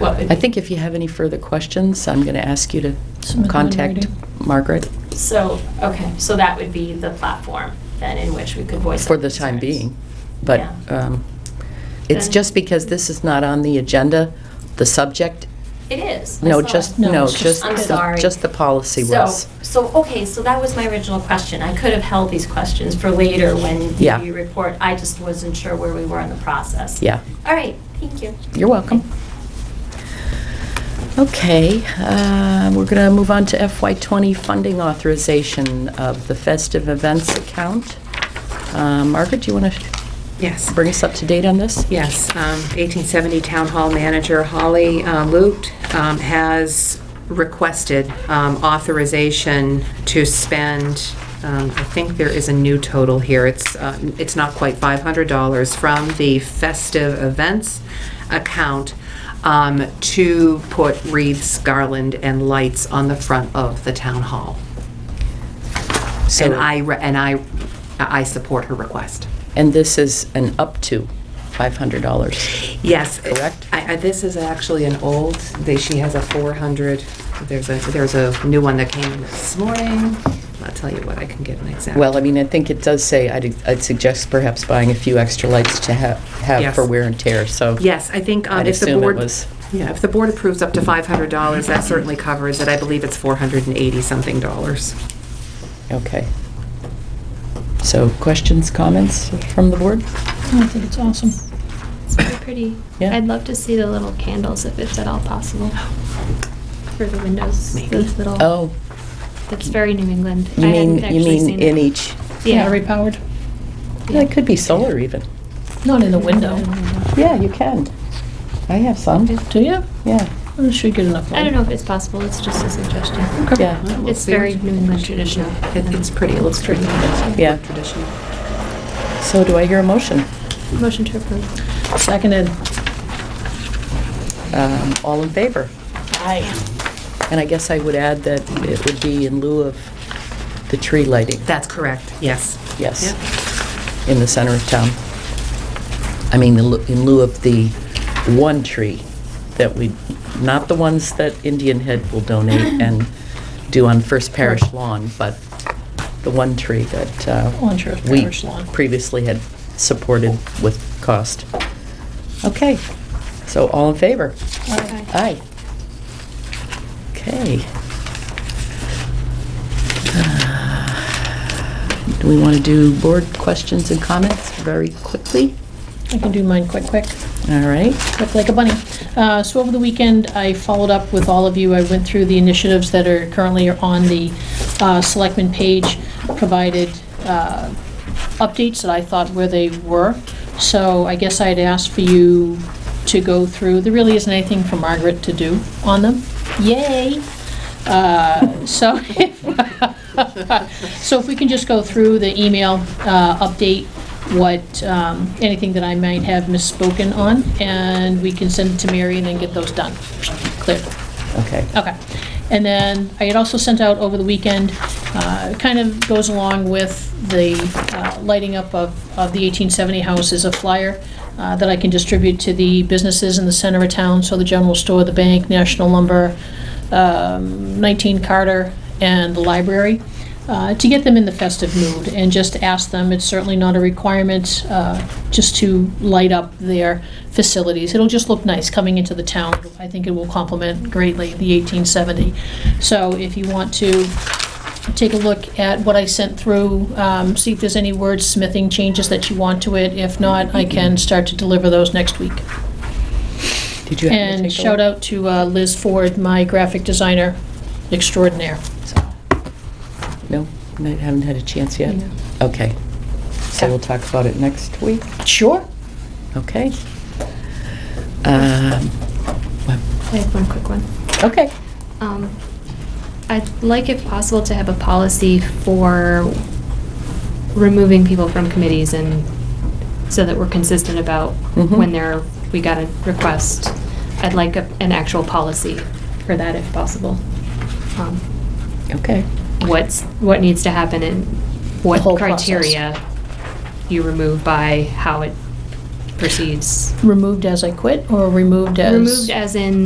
Well, I think if you have any further questions, I'm going to ask you to Submit them in contact writing. Margaret So, okay, so that would be the platform then in which we could voice. for our the time concerns. being. But Yeah. um, it's Then- just because this is not on the agenda, the subject, It is. I no, saw just, it. No, no, it's just just, I'm the- sorry. just the policy So- was. So, okay, so that was my original question. I could have held these questions for later when Yeah. you report. I just wasn't sure where we were in the process. Yeah, All right, thank you. you're welcome. Okay, uh, we're going to move on to FY20 funding authorization of the festive events account. Uh, Margaret, do you want to Yes. bring us up to date on this? Yes, um, 1870 Town Hall Manager Holly uh, Lute um, has requested um, authorization to spend, um, I think there is a new total here, it's, uh, it's not quite $500, from the festive events account um, to put wreaths, garland, and lights on the front of the Town Hall. So- And I, re- and I, I support her request. And this is an up to $500. Yes. Correct? I, I, this is actually an old, they, she has a four hundred, there's a, there's a new one that came in this morning. I'll tell you what, I can get an exact. Well, I mean, I think it does say, I'd I'd suggest perhaps buying a few extra lights to ha- have Yes. for wear and tear, so. Yes, I think, um, I'd if the assume it board. was- Yeah, if the board approves up to five hundred dollars, that certainly covers it. I believe it's four hundred and eighty something dollars. Okay. So questions, comments from the board? I think it's awesome. It's pretty pretty. Yeah. I'd love to see the little candles if it's at all possible. For the windows, Maybe. those little. Oh, That's very New England. you I hadn't mean, you actually mean seen in it. each, Yeah. Battery powered. yeah, it could be solar even. Not in the window. Yeah, you can. I have some, Do you? yeah, I'm sure you get enough. I don't know if it's possible. It's just a suggestion. yeah. Well, we'll It's see. very New England traditional. It- It's pretty, it looks pretty. Yeah. Traditional. So do I hear a motion? Motion to approve. Seconded. Um, All in favor? Aye. And I guess I would add that it would be in lieu of the tree lighting. That's correct, yes. Yes, Yep. in the center of town. I mean, in lieu- in lieu of the one tree that we, not the ones that Indian Head will donate and do on First Parish lawn, but the one tree that uh, On sure. we lawn. previously had supported with cost. Okay, so all in favor? Aye. Aye. Okay. Uh, Do we want to do board questions and comments very quickly? I can do mine quick, quick. All right. Look like a bunny. Uh, So over the weekend, I followed up with all of you. I went through the initiatives that are currently on the uh, Selectmen page, provided uh, updates that I thought where they were. So I guess I'd ask for you to go through, there really isn't anything for Margaret to do on them. Yay! Uh, So, so if we can just go through the email, uh, update what, um, anything that I might have misspoken on, and we can send it to Mary and then get those done, cleared. Okay. Okay. And then I had also sent out over the weekend, uh, it kind of goes along with the uh, lighting up of, of the 1870 house is a flyer uh, that I can distribute to the businesses in the center of town, so the general store, the bank, National Lumber, um, 19 Carter, and the library, uh, to get them in the festive mood and just ask them, it's certainly not a requirement, uh, just to light up their facilities. It'll just look nice coming into the town. I think it will complement greatly the 1870. So if you want to take a look at what I sent through, um, see if there's any wordsmithing changes that you want to it. If not, I can start to deliver those next week. Did you have to And take shout out to uh, Liz Ford, my graphic designer extraordinaire. No, I haven't had a chance yet? No. Okay. So we'll talk about it next week? Sure. Okay. Um, I have one quick one. Okay. Um, I'd like, if possible, to have a policy for removing people from committees and so that we're consistent about Mm-hmm. Mhm. when there, we got a request. I'd like a- an actual policy for that if possible. Um, Okay. What's, what needs to happen and what The whole process. criteria you remove by how it proceeds. Removed as I quit or removed as? Removed as in